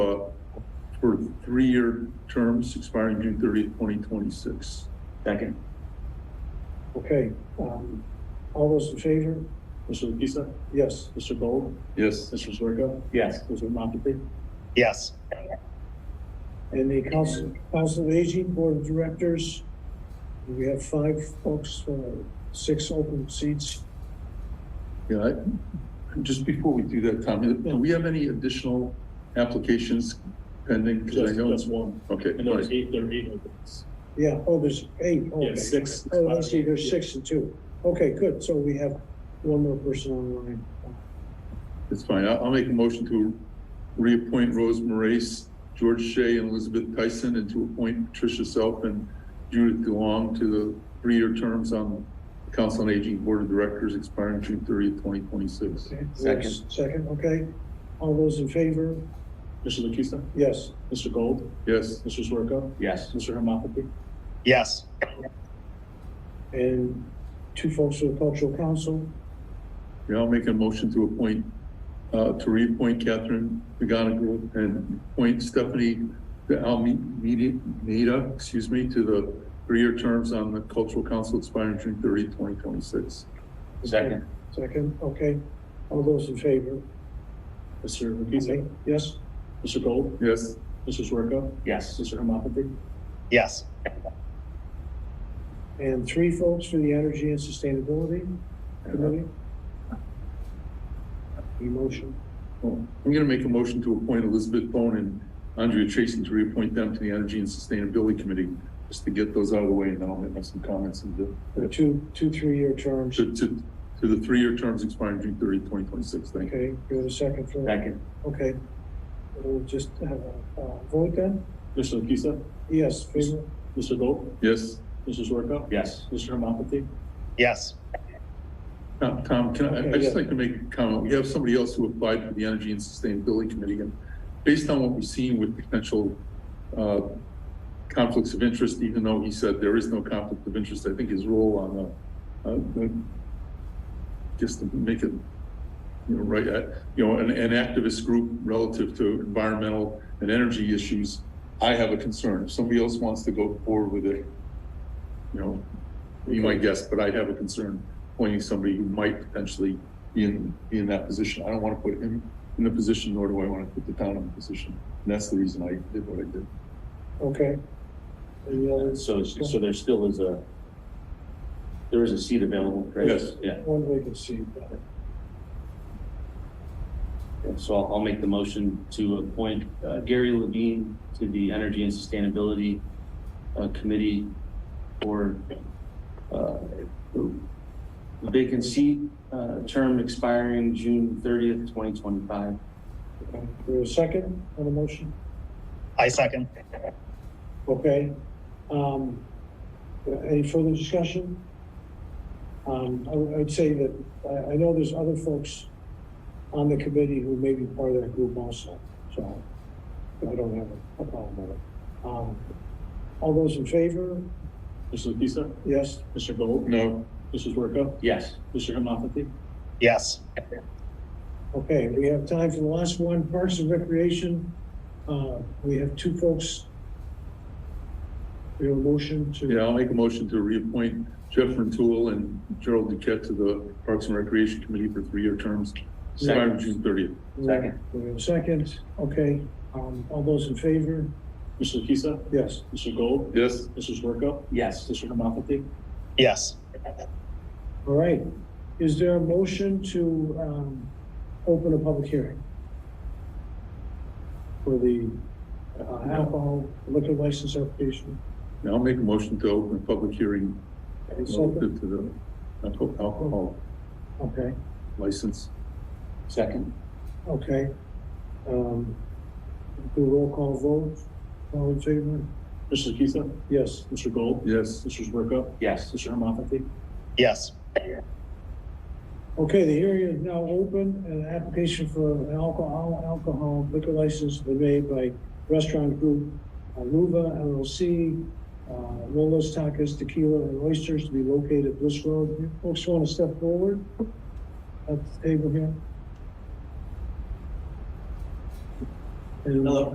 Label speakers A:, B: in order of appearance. A: for three-year terms expiring June thirtieth, twenty twenty-six.
B: Second.
C: Okay, um, all those in favor?
D: Mr. Lepisa?
C: Yes.
D: Mr. Gold?
A: Yes.
D: Mr. Zerko?
B: Yes.
D: Mr. Montague?
B: Yes.
C: And the council, council of aging board of directors, we have five folks, uh, six open seats.
A: Yeah, I- just before we do that, Tommy, do we have any additional applications pending? 'Cause I
D: Just,
A: know-
D: just one.
A: Okay,
D: And there
A: right.
D: are eight, there are eight openings.
C: Yeah, oh, there's eight. okay.
D: Yeah, six.
C: Oh, I see, there's six and two. Okay, good, so we have one more person online.
A: it's fine. I'll, I'll make a motion to reappoint Rose Moraes, George Shea, and Elizabeth Tyson, and to appoint Patricia Self and Judith DeLong to the three-year terms on the Council on Aging Board of Directors expiring June thirtieth, twenty twenty-six.
C: Okay,
B: Second.
C: Second, okay. All those in favor?
D: Mr. Lepisa?
C: Yes.
D: Mr. Gold?
A: Yes,
D: Mr. Zerko?
B: Yes.
D: Mr. Hemaphathy?
B: Yes.
C: And two folks to the cultural council?
A: yeah, I'll make a motion to appoint, uh, to reappoint Catherine McGonigal and appoint Stephanie de Almeida, excuse me, to the three-year terms on the Cultural Council expiring June thirtieth, twenty twenty-six.
B: Second.
C: Second, okay. All those in favor?
D: Mr. Lepisa?
C: Yes?
D: Mr. Gold?
A: Yes.
D: Mr. Zerko?
B: Yes.
D: Mr. Hemaphathy?
B: Yes.
C: And three folks for the Energy and Sustainability Committee? Emotion,
A: Well, I'm gonna make a motion to appoint Elizabeth Bone and Andrea Chason to reappoint them to the Energy and Sustainability Committee, just to get those out of the way, and then I'll make some comments and the,
C: the two, two, three-year terms.
A: to, to, to the three-year terms expiring June 30, 2026. Thank you.
C: Okay, you're the second for.
B: Second.
C: Okay. We'll just have a, uh, vote then?
D: Mr. Lepisa?
C: Yes, favor?
D: Mr. Gold?
A: Yes,
D: Mr. Zerko?
B: Yes.
D: Mr. Hemaphathy?
B: Yes.
A: Tom, Tom, can I,
C: Okay,
A: I just
C: yeah.
A: like to make a comment. We have somebody else who applied for the Energy and Sustainability Committee, and based on what we've seen with potential, uh, conflicts of interest, even though he said there is no conflict of interest, I think his role on the, uh, the- just to make it, you know, right, uh, you know, an, an activist group relative to environmental and energy issues, I have a concern. If somebody else wants to go forward with it, you know, you might guess, but I'd have a concern appointing somebody who might potentially be in, be in that position. I don't want to put him in a position, nor do I want to put the town in a position. And that's the reason I did what I did.
C: Okay. And the others,
B: So, so there still is a, there is a seat available, right?
A: Yes.
B: Yeah,
C: one vacancy.
B: so I'll, I'll make the motion to appoint uh, Gary Levine to the Energy and Sustainability uh, Committee for uh, the vacant seat, uh, term expiring June thirtieth, twenty twenty-five.
C: Okay. You're the second on the motion?
B: I second.
C: Okay, um, any further discussion? Um, I would, I'd say that, I, I know there's other folks on the committee who may be part of that group also, so I don't have a problem with it. Um, all those in favor?
D: Mr. Lepisa?
C: Yes,
D: Mr. Gold?
A: No,
D: Mr. Zerko?
B: Yes.
D: Mr. Hemaphathy?
B: Yes.
C: okay, we have time for the last one, Parks and Recreation. Uh, we have two folks. We have a motion to.
A: yeah, I'll make a motion to reappoint Jeff Rentoul and Gerald Duquette to the Parks and Recreation Committee for three-year terms, starting
B: Second.
A: June thirtieth.
B: Second.
C: We have a second, okay, um, all those in favor?
D: Mr. Lepisa?
C: Yes.
D: Mr. Gold?
A: Yes,
D: Mr. Zerko?
B: Yes.
D: Mr. Hemaphathy?
B: Yes.
C: All right, is there a motion to, um, open a public hearing? For the uh, alcohol liquor license application?
A: now I'll make a motion to open a public hearing relative to the alco- alcohol
C: Okay,
A: license.
B: Second.
C: okay. Um, do a roll call vote, all in favor?
D: Mr. Lepisa?
C: Yes,
D: Mr. Gold?
A: Yes,
D: Mr. Zerko?
B: Yes.
D: Mr. Hemaphathy?
B: Yes.
C: okay, the hearing is now open, and an application for an alcohol, alcohol liquor license was made by restaurant group uh, Aluva LLC, uh, Lola's Tacos Tequila and Oysters to be located at Bliss Road. You Folks want to step forward at the table here? And-
E: Hello.